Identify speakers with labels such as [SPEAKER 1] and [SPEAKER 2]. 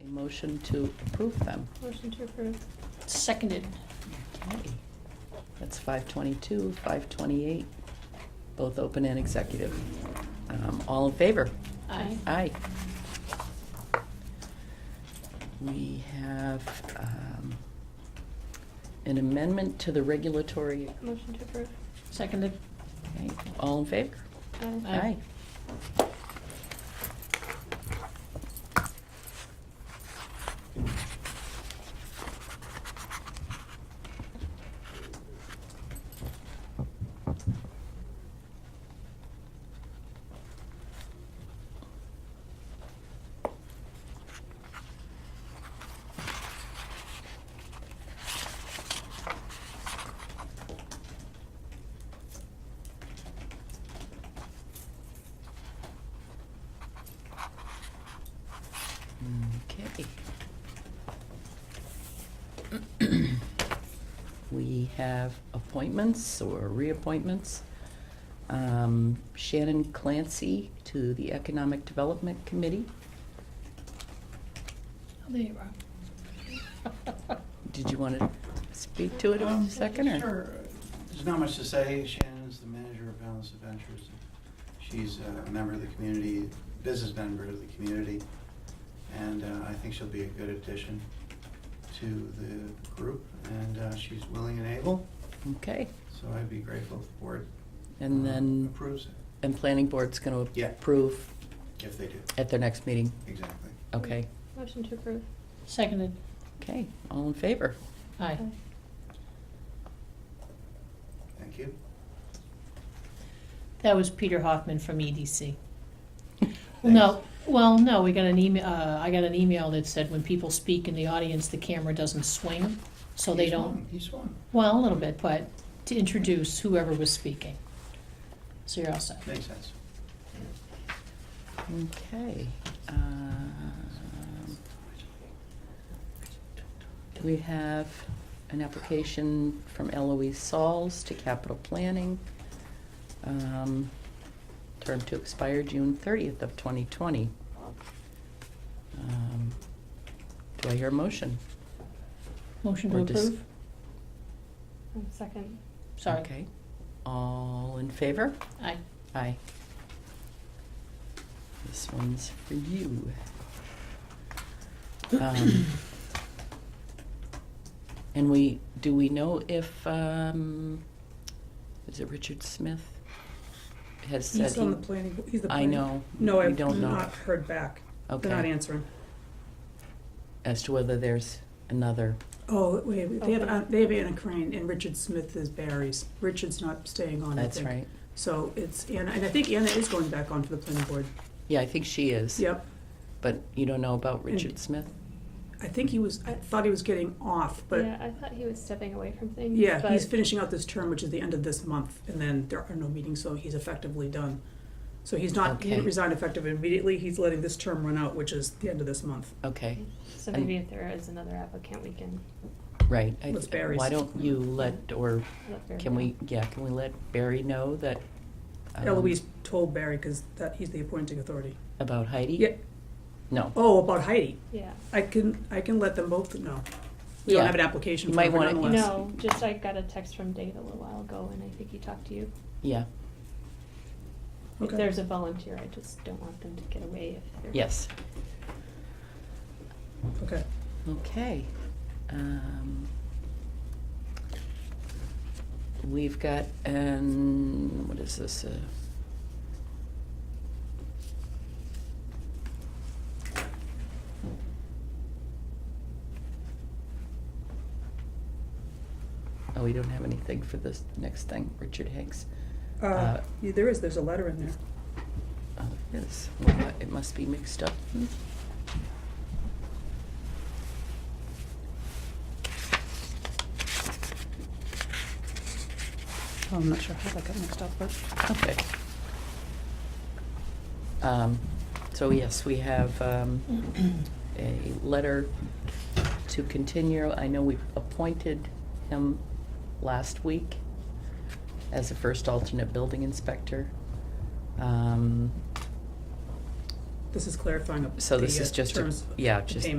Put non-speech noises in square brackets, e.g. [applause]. [SPEAKER 1] a motion to approve them.
[SPEAKER 2] Motion to approve.
[SPEAKER 3] Seconded.
[SPEAKER 1] Okay. That's five twenty-two, five twenty-eight, both open and executive. Um, all in favor?
[SPEAKER 3] Aye.
[SPEAKER 1] Aye. We have, um, an amendment to the regulatory,
[SPEAKER 2] Motion to approve.
[SPEAKER 3] Seconded.
[SPEAKER 1] okay, all in favor?
[SPEAKER 2] Aye.
[SPEAKER 3] Aye.
[SPEAKER 1] Okay. [clears throat] We have appointments or reappointments. Um, Shannon Clancy to the Economic Development Committee.
[SPEAKER 3] Oh, there you are.
[SPEAKER 1] Did you want to speak to it a
[SPEAKER 4] Um,
[SPEAKER 1] second or?
[SPEAKER 4] Sure. There's not much to say. Shannon's the manager of Balance Adventures. She's a member of the community, business member of the community, and uh, I think she'll be a good addition to the group, and uh, she's willing and able,
[SPEAKER 1] Okay,
[SPEAKER 4] so I'd be grateful if the board
[SPEAKER 1] and
[SPEAKER 4] uh,
[SPEAKER 1] then,
[SPEAKER 4] approves it,
[SPEAKER 1] and Planning Board's going to
[SPEAKER 4] Yeah.
[SPEAKER 1] approve
[SPEAKER 4] if they do.
[SPEAKER 1] at their next meeting.
[SPEAKER 4] Exactly.
[SPEAKER 1] Okay,
[SPEAKER 2] Motion to approve.
[SPEAKER 3] [laughs] Seconded.
[SPEAKER 1] okay, all in favor?
[SPEAKER 3] Aye.
[SPEAKER 4] Thank you.
[SPEAKER 3] That was Peter Hoffman from EDC. No, well, no, we got an email, uh, I got an email that said when people speak in the audience, the camera doesn't swing, so they
[SPEAKER 4] He
[SPEAKER 3] don't,
[SPEAKER 4] swung. He swung.
[SPEAKER 3] well, a little bit, but to introduce whoever was speaking. So you're all set.
[SPEAKER 4] Makes sense.
[SPEAKER 1] Okay. um, We have an application from Eloise Sauls to Capital Planning. um, Term to expire June thirtieth of twenty twenty. Um, Do I hear a motion?
[SPEAKER 3] Motion to
[SPEAKER 1] Or dis-
[SPEAKER 3] approve?
[SPEAKER 2] Um, Second.
[SPEAKER 3] Sorry.
[SPEAKER 1] Okay. All in favor?
[SPEAKER 3] Aye.
[SPEAKER 1] Aye. This one's for you. Um, And we, do we know if, um, is it Richard Smith? Has said
[SPEAKER 5] He's on the
[SPEAKER 1] he,
[SPEAKER 5] planning, bo- he's the
[SPEAKER 1] I
[SPEAKER 5] planning.
[SPEAKER 1] know,
[SPEAKER 5] No,
[SPEAKER 1] we
[SPEAKER 5] I've
[SPEAKER 1] don't know.
[SPEAKER 5] not heard back. They're not
[SPEAKER 1] okay,
[SPEAKER 5] answering.
[SPEAKER 1] as to whether there's another,
[SPEAKER 5] Oh, wait, wait, they have,
[SPEAKER 2] Okay.
[SPEAKER 5] uh, they have Anna Crane and Richard Smith is Barry's. Richard's not staying on, I think.
[SPEAKER 1] that's right.
[SPEAKER 5] So it's Anna, and I think Anna is going back onto the planning board.
[SPEAKER 1] Yeah, I think she is,
[SPEAKER 5] Yep.
[SPEAKER 1] but you don't know about Richard Smith?
[SPEAKER 5] I think he was, I thought he was getting off, but
[SPEAKER 2] Yeah, I thought he was stepping away from things.
[SPEAKER 5] yeah, he's
[SPEAKER 2] but-
[SPEAKER 5] finishing out this term, which is the end of this month, and then there are no meetings, so he's effectively done. So he's not, he
[SPEAKER 1] Okay.
[SPEAKER 5] resigned effective immediately. He's letting this term run out, which is the end of this month.
[SPEAKER 1] Okay,
[SPEAKER 2] So maybe if there is another applicant, we can
[SPEAKER 1] right. I-
[SPEAKER 5] Let's Barry's.
[SPEAKER 1] Why don't you let, or
[SPEAKER 2] let Barry
[SPEAKER 1] Can
[SPEAKER 2] know.
[SPEAKER 1] we, yeah, can we let Barry know that? um,
[SPEAKER 5] Eloise told Barry, because that, he's the appointing authority.
[SPEAKER 1] About Heidi?
[SPEAKER 5] Yeah.
[SPEAKER 1] No.
[SPEAKER 5] Oh, about Heidi.
[SPEAKER 2] Yeah.
[SPEAKER 5] I can, I can let them both know. We don't
[SPEAKER 1] Yeah.
[SPEAKER 5] have an application
[SPEAKER 1] You
[SPEAKER 5] for
[SPEAKER 1] might
[SPEAKER 5] it
[SPEAKER 1] wanna-
[SPEAKER 5] nonetheless.
[SPEAKER 2] No, just I got a text from Dave a little while ago, and I think he talked to you.
[SPEAKER 1] Yeah,
[SPEAKER 2] If
[SPEAKER 5] Okay.
[SPEAKER 2] there's a volunteer, I just don't want them to get away if they're.
[SPEAKER 1] yes,
[SPEAKER 5] Okay.
[SPEAKER 1] okay. Um, We've got an, what is this? uh, Oh, we don't have anything for this next thing, Richard Hanks.
[SPEAKER 5] Uh,
[SPEAKER 1] Uh,
[SPEAKER 5] yeah, there is, there's a letter in there.
[SPEAKER 1] Oh, it is. Well, it must be mixed up. Hmm.
[SPEAKER 5] Oh, I'm not sure how that got mixed up, but.
[SPEAKER 1] Okay. Um, So yes, we have um, a letter to continue. I know we appointed him last week as a first alternate building inspector. Um,
[SPEAKER 5] This is clarifying up
[SPEAKER 1] So this
[SPEAKER 5] the,
[SPEAKER 1] is
[SPEAKER 5] uh,
[SPEAKER 1] just, a-
[SPEAKER 5] terms of
[SPEAKER 1] yeah,
[SPEAKER 5] the
[SPEAKER 1] just
[SPEAKER 5] payment.